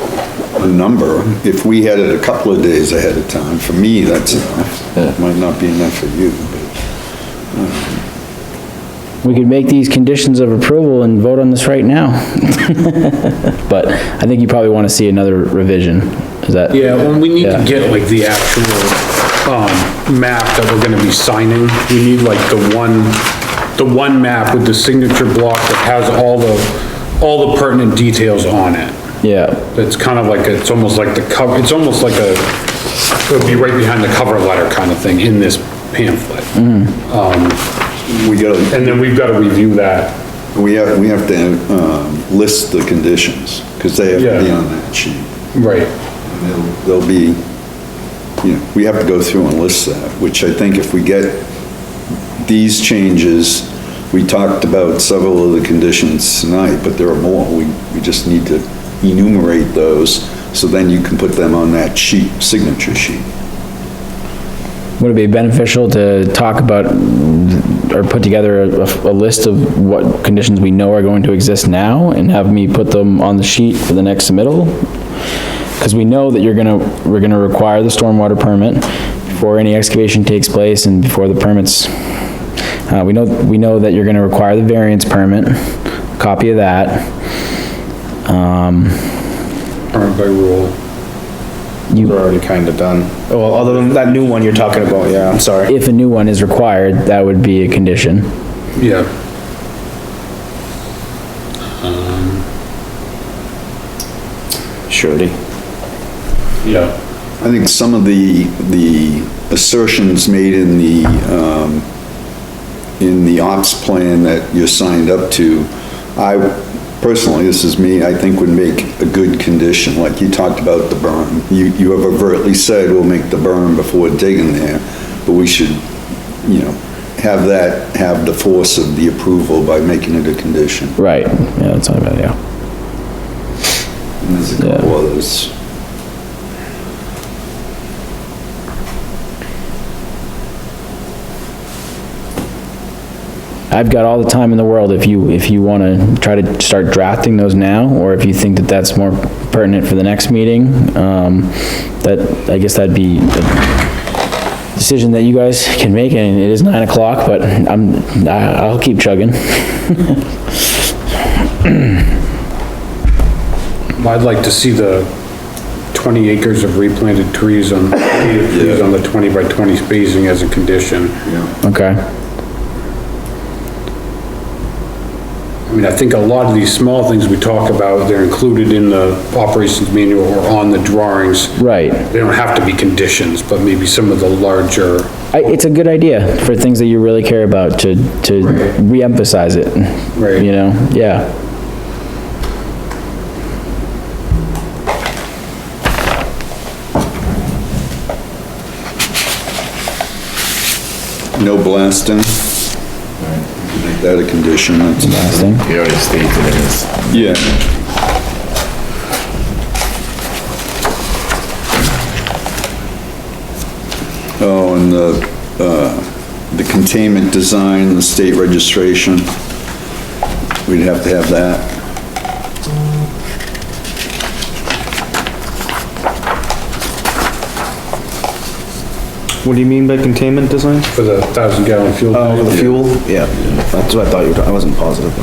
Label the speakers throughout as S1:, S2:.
S1: a number. If we had it a couple of days ahead of time, for me, that's enough.
S2: Yeah.
S1: Might not be enough for you, but.
S3: We could make these conditions of approval and vote on this right now. But I think you probably want to see another revision. Is that?
S4: Yeah, when we need to
S3: Yeah.
S4: get like the actual, um, map that we're gonna be signing, we need like the one, the one map with the signature block that has all the, all the pertinent details on it.
S3: Yeah,
S4: It's kind of like, it's almost like the cover, it's almost like a, it would be right behind the cover letter kind of thing in this pamphlet.
S1: We gotta,
S4: And then we've gotta review that.
S1: we have, we have to, um, list the conditions, because they have to be
S4: Yeah.
S1: on that sheet.
S4: Right.
S1: They'll they'll be, you know, we have to go through and list that, which I think if we get these changes, we talked about several of the conditions tonight, but there are more. We, we just need to enumerate those, so then you can put them on that sheet, signature sheet.
S3: would it be beneficial to talk about or put together a, a list of what conditions we know are going to exist now and have me put them on the sheet for the next submittal? Because we know that you're gonna, we're gonna require the stormwater permit before any excavation takes place and before the permits. Uh, we know, we know that you're gonna require the variance permit, copy of that.
S4: Current by rule.
S5: We're already kinda done. Well, other than that new one you're talking about, yeah, I'm sorry.
S3: If a new one is required, that would be a condition.
S4: Yeah.
S5: Surety.
S4: Yeah.
S1: I think some of the, the assertions made in the, um, in the ops plan that you're signed up to, I personally, this is me, I think would make a good condition, like you talked about the berm. You, you have overtly said we'll make the berm before digging there, but we should, you know, have that, have the force of the approval by making it a condition.
S3: Right, yeah, that's not a bad idea.
S1: And there's a couple others.
S3: I've got all the time in the world if you, if you want to try to start drafting those now, or if you think that that's more pertinent for the next meeting, um, that, I guess that'd be a decision that you guys can make, and it is nine o'clock, but I'm, I- I'll keep chugging.
S4: Well, I'd like to see the 20 acres of replanted trees on, native trees on the 20 by 20 spacing as a condition.
S3: Okay,
S4: I mean, I think a lot of these small things we talk about, they're included in the operations manual or on the drawings.
S3: right.
S4: They don't have to be conditions, but maybe some of the larger,
S3: I, it's a good idea for things that you really care about to, to
S4: Right.
S3: re-emphasize it.
S4: Right.
S3: You know, yeah,
S1: No blasting. Make that a condition, that's.
S3: last thing.
S2: He already stated it is.
S1: Yeah. Oh, and the, uh, the containment design, the state registration, we'd have to have that.
S5: What do you mean by containment design?
S4: for the thousand gallon fuel.
S5: Oh,
S4: tank.
S5: the fuel? Yeah, that's what I thought you were, I wasn't positive.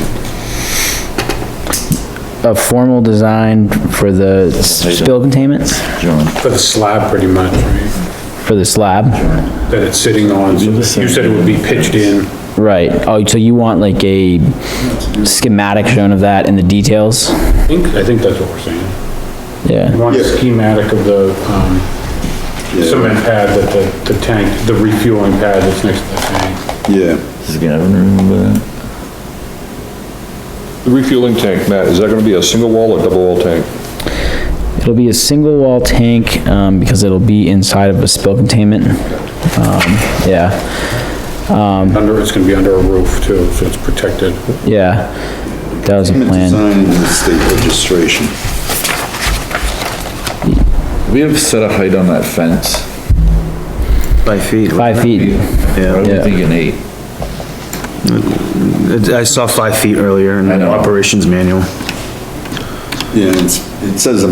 S3: A formal design for the spill containment,
S2: John.
S4: For the slab, pretty much, right?
S3: for the slab.
S4: That it's sitting on. You said it would be pitched in.
S3: Right, oh, so you want like a schematic shown of that and the details?
S4: I think, I think that's what we're saying. You
S3: Yeah,
S4: want a
S1: Yeah.
S4: schematic of the, um,
S1: Yeah,
S4: cement pad that the, the tank, the refueling pad that's next to the tank.
S1: Yeah,
S2: Is gonna remember that?
S6: The refueling tank, Matt, is that gonna be a single wall or double wall tank?
S3: it'll be a single wall tank, um, because it'll be inside of a spill containment. Um, yeah,
S4: Under, it's gonna be under a roof too, so it's protected.
S3: yeah, that was a
S1: containment design
S3: plan.
S1: and the state registration.
S2: We have set a height on that fence.
S5: By feet.
S3: Five feet,
S2: I
S5: Yeah,
S2: was
S3: Yeah.
S2: thinking eight.
S5: I saw five feet earlier in
S2: I
S5: the
S2: know.
S5: operations manual.
S1: Yeah, it's, it says a